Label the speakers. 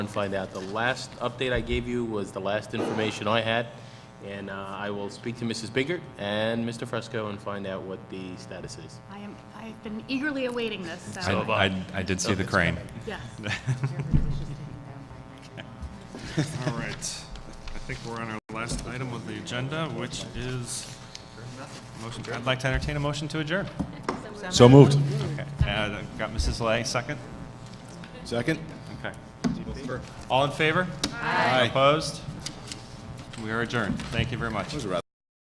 Speaker 1: and find out. The last update I gave you was the last information I had, and uh, I will speak to Mrs. Biggert and Mr. Fresco and find out what the status is.
Speaker 2: I am, I've been eagerly awaiting this,
Speaker 3: I,
Speaker 2: so,
Speaker 3: I, I did see the crane.
Speaker 2: yes.
Speaker 4: All right. I think we're on our last item of the agenda, which is motion, I'd like to entertain a motion to adjourn.
Speaker 5: So moved.
Speaker 4: Okay. Uh, Got Mrs. Lay, second?
Speaker 5: Second?
Speaker 4: Okay. All in favor? Aye. Opposed? We are adjourned. Thank you very much.
Speaker 5: That was a rather